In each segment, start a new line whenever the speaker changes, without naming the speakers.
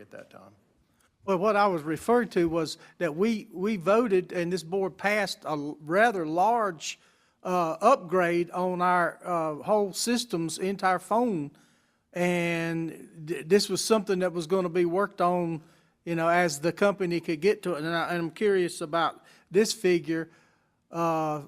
at that time.
Well, what I was referring to was that we, we voted and this board passed a l- rather large uh, upgrade on our uh, whole systems into our phone. And th- this was something that was going to be worked on, you know, as the company could get to it. And I, and I'm curious about this figure. Uh,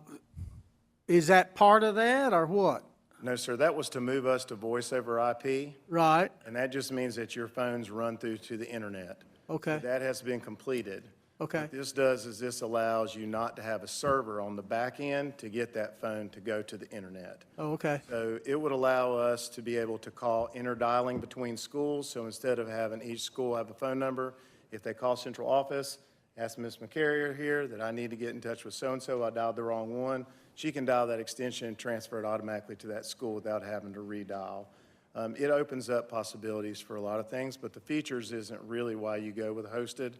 Is that part of that or what?
No, sir, that was to move us to voice over IP,
Right?
and that just means that your phones run through to the internet.
Okay.
That has been completed.
Okay.
What this does is this allows you not to have a server on the back end to get that phone to go to the internet.
Oh, okay.
So it would allow us to be able to call interdialing between schools, so instead of having each school have a phone number, if they call central office, ask Ms. McCarrier here that I need to get in touch with so-and-so, I dialed the wrong one, she can dial that extension and transfer it automatically to that school without having to redial. Um, It opens up possibilities for a lot of things, but the features isn't really why you go with hosted.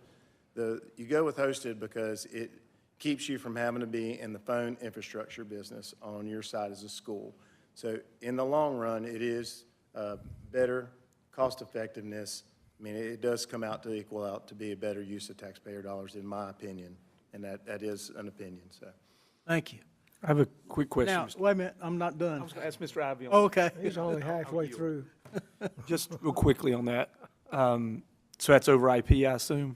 The, you go with hosted because it keeps you from having to be in the phone infrastructure business on your side as a school. So in the long run, it is uh, better cost effectiveness. I mean, it does come out to equal out to be a better use of taxpayer dollars, in my opinion, and that, that is an opinion, so.
Thank you.
I have a quick question.
Now,
Mr.
wait a minute, I'm not done.
I was going to ask Mr. Ivy. on
Okay.
He's only halfway through.
Just real quickly on that. Um, So that's over IP, I assume?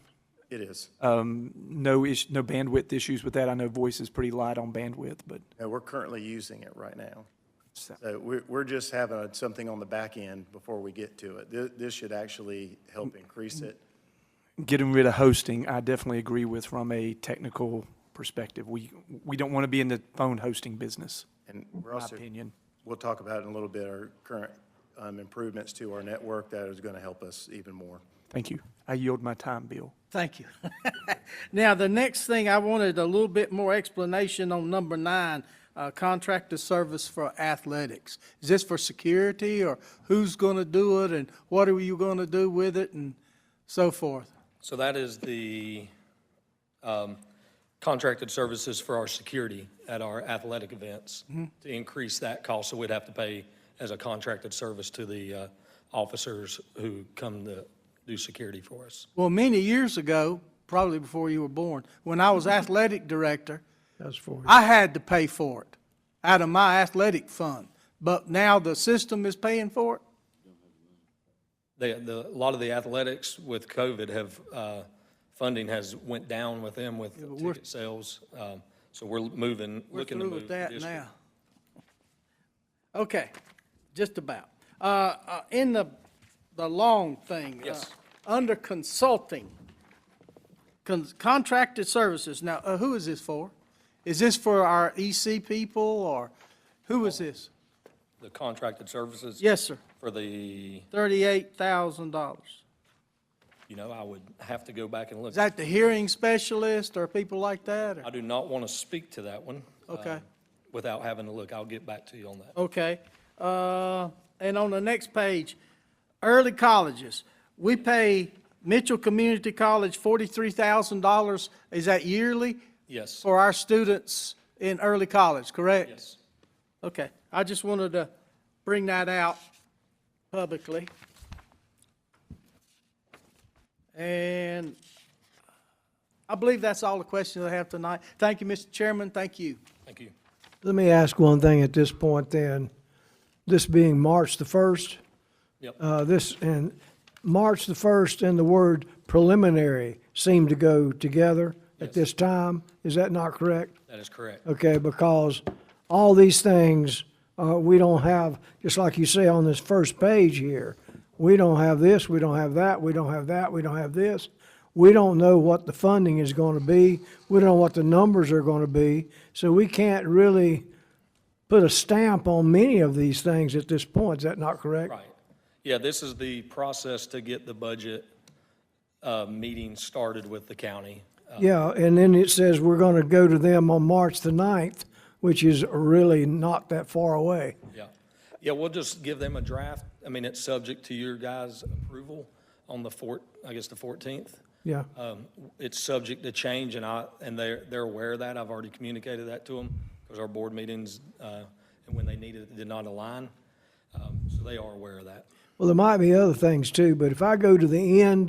It is.
No ish, no bandwidth issues with that? I know voice is pretty light on bandwidth, but
And we're currently using it right now. So we're, we're just having a- something on the back end before we get to it. This, this should actually help increase it.
getting rid of hosting, I definitely agree with from a technical perspective. We, we don't want to be in the phone hosting business,
And we're
my
also.
opinion.
We'll talk about in a little bit, our current um, improvements to our network that is going to help us even more.
Thank you. I yield my time, Bill.
Thank you. Now, the next thing, I wanted a little bit more explanation on number nine, uh, contractor service for athletics. Is this for security, or who's going to do it, and what are you going to do with it, and so forth?
So that is the um, contracted services for our security at our athletic events.
Mm-hmm.
To increase that cost, so we'd have to pay as a contracted service to the uh, officers who come to do security for us.
Well, many years ago, probably before you were born, when I was athletic director,
That's for
I had to pay for it out of my athletic fund, but now the system is paying for it?
They, the, a lot of the athletics with COVID have, uh, funding has went down with them with ticket sales. Um, So we're moving,
We're
looking to move.
through with
the
that
district.
now. Okay, just about. Uh, uh, In the, the long thing. uh,
Yes.
Under consulting, con- contracted services, now, uh, who is this for? Is this for our EC people, or who is this?
The contracted services.
Yes, sir,
For the,
$38,000.
you know, I would have to go back and look.
Is that the hearing specialist, or people like that? or-
I do not want to speak to that one.
Okay.
um, Without having to look, I'll get back to you on that.
Okay, uh, and on the next page, early colleges, we pay Mitchell Community College forty-three thousand dollars, is that yearly?
Yes.
For our students in early college, correct?
Yes.
Okay, I just wanted to bring that out publicly. And I believe that's all the questions I have tonight. Thank you, Mr. Chairman, thank you.
Thank you.
Let me ask one thing at this point then. This being March the 1st,
Yep.
uh, this, and March the 1st and the word preliminary seem to go together at this time. Is that not correct?
That is correct.
Okay, because all these things, uh, we don't have, just like you say on this first page here, we don't have this, we don't have that, we don't have that, we don't have this. We don't know what the funding is gonna be, we don't know what the numbers are gonna be, so we can't really put a stamp on many of these things at this point, is that not correct?
Right. Yeah, this is the process to get the budget uh, meeting started with the county.
Yeah, and then it says we're gonna go to them on March the ninth, which is really not that far away.
Yeah. Yeah, we'll just give them a draft. I mean, it's subject to your guys' approval on the four, I guess, the 14th.
Yeah,
Um, It's subject to change and I, and they're, they're aware of that. I've already communicated that to them because our board meetings, uh, and when they needed, it did not align. Um, So they are aware of that.
well, there might be other things too, but if I go to the end